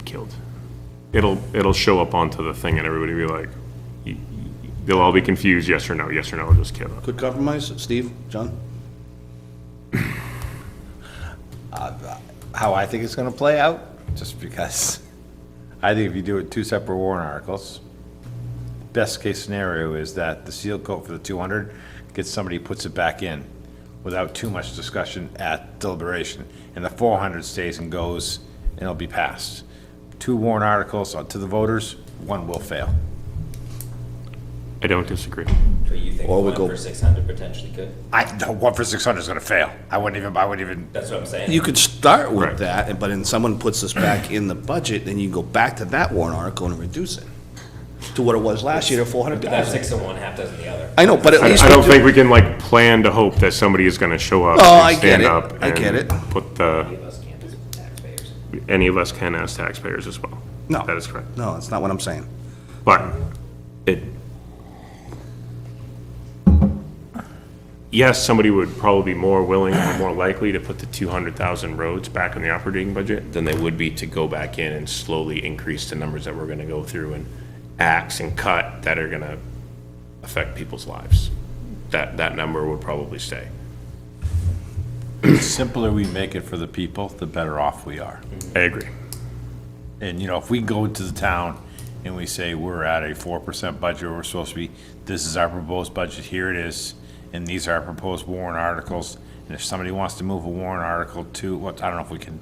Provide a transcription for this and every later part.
killed. It'll, it'll show up onto the thing and everybody will be like, y- y- they'll all be confused, yes or no, yes or no, it'll just kill it. Good compromise, Steve, John? how I think it's gonna play out, just because I think if you do it two separate warrant articles, best case scenario is that the seal coat for the two hundred gets somebody who puts it back in without too much discussion at deliberation, and the four hundred stays and goes, and it'll be passed. Two warrant articles uh, to the voters, one will fail. I don't disagree. But you think Or we one go- for six hundred potentially could? I, the one for six hundred is gonna fail. I wouldn't even, I wouldn't even, That's what I'm saying. You could start with Right. that, and- but then someone puts this back in the budget, then you go back to that warrant article and reduce it to what it was last year, to four hundred But that's thousand. six of one, half dozen the other. I know, but at I, least. I we don't do- think we can like plan to hope that somebody is gonna show up. No, and I get stand it. up I get and it. Put Any of the, us can't as taxpayers. any of us can as taxpayers as well. No. That is correct. No, that's not what I'm saying. But it. Yes, somebody would probably be more willing or more likely to put the two hundred thousand roads back in the operating budget than they would be to go back in and slowly increase the numbers that we're gonna go through and axe and cut that are gonna affect people's lives. That, that number would probably stay. the simpler we make it for the people, the better off we are. I agree. And, you know, if we go to the town and we say, we're at a four percent budget, we're supposed to be, this is our proposed budget, here it is, and these are our proposed warrant articles, and if somebody wants to move a warrant article to, what, I don't know if we can,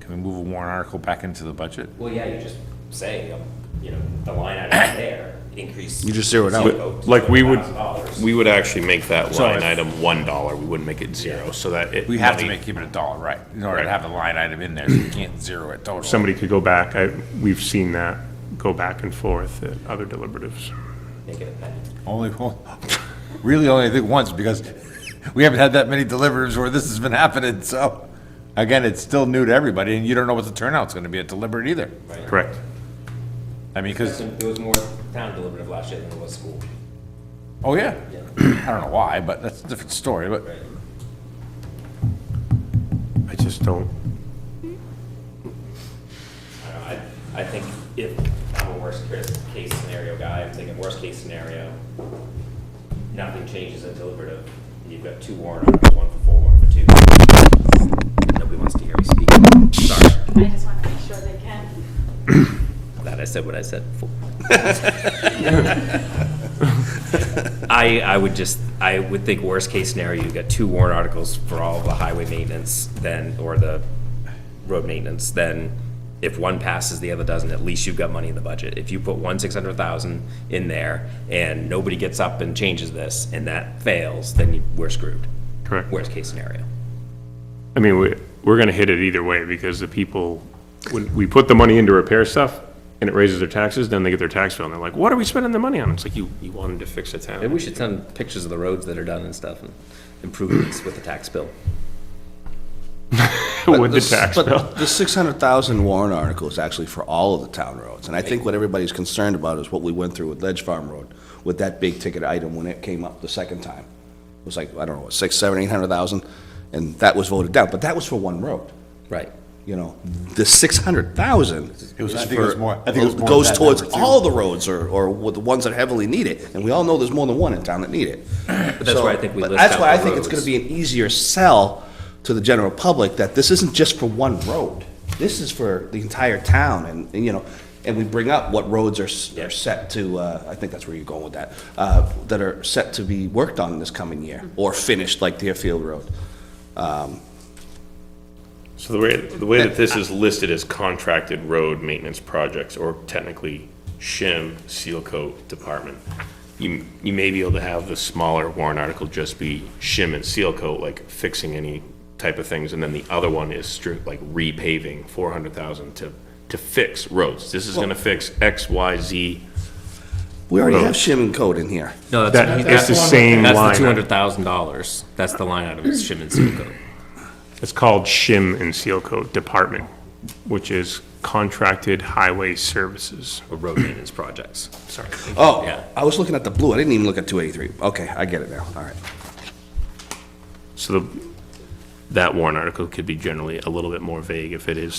can we move a warrant article back into the budget? Well, yeah, you just say, um, you know, the line item there, increase. You just zero it out. seal coat to Like, we would, $200,000. we would actually make that So line if- item one dollar, we wouldn't make it zero, so that it. We have to money- make, keep it a dollar, right, in order to Right. have the line item in there, so you can't zero it totally. somebody could go back, I, we've seen that go back and forth at other deliberatives. Make it a penny. Only, really only I think once, because we haven't had that many deliverers where this has been happening, so. Again, it's still new to everybody, and you don't know what the turnout's gonna be at deliberate either. Correct. I mean, cause, There was more town deliberative last year than there was school. oh yeah, I don't know why, but that's a different story, but Right. I just don't, I don't know, I, I think if I'm a worst case, case scenario guy, I'm thinking worst case scenario, nothing changes at deliberative. You've got two warrant articles, one for four, one for two. Nobody wants to hear me speak. Sorry, I just want to make sure they can. glad I said what I said. I, I would just, I would think worst case scenario, you've got two warrant articles for all the highway maintenance then, or the road maintenance, then if one passes, the other doesn't, at least you've got money in the budget. If you put one six hundred thousand in there and nobody gets up and changes this and that fails, then you- we're screwed. Correct. Worst case scenario. I mean, we, we're gonna hit it either way, because the people, when we put the money into repair stuff, and it raises their taxes, then they get their tax bill, and they're like, what are we spending the money on? It's like, you, you wanted to fix the Maybe town. we should send pictures of the roads that are done and stuff and improvements with the tax bill. With the tax But bill. The six hundred thousand warrant article is actually for all of the town roads, and I think what everybody's concerned about is what we went through with Ledge Farm Road, with that big ticket item when it came up the second time. It was like, I don't know, six, seven, eight hundred thousand, and that was voted down, but that was for one road. Right. you know, the six hundred thousand. It was- I think it was more- I think it was more Goes than that towards number, too. all the roads or, or with the ones that heavily need it, and we all know there's more than one in town that need it. But that's why I think we list That's out why I the think it's gonna roads. be an easier sell to the general public that this isn't just for one road. This is for the entire town and, and, you know, and we bring up what roads are, s- are set to, uh, I think that's where you're going with that, uh, that are set to be worked on this coming year Mm-hmm. or finished like Deerfield Road. So the way, the way that this is listed is contracted road maintenance projects, or technically shim, seal coat, department. You, you may be able to have the smaller warrant article just be shim and seal coat, like fixing any type of things, and then the other one is strict, like repaving, four hundred thousand to, to fix roads. This is gonna fix X, Y, Z. We already have Roads. shim and code in here. No, That- it's the same line. That's the two hundred thousand dollars. That's the line item, it's shim and seal coat. It's called shim and seal coat department, which is contracted highway services. or road maintenance projects. Sorry. Oh, Yeah. I was looking at the blue. I didn't even look at 283. Okay, I get it now. All right. So the, that warrant article could be generally a little bit more vague if it is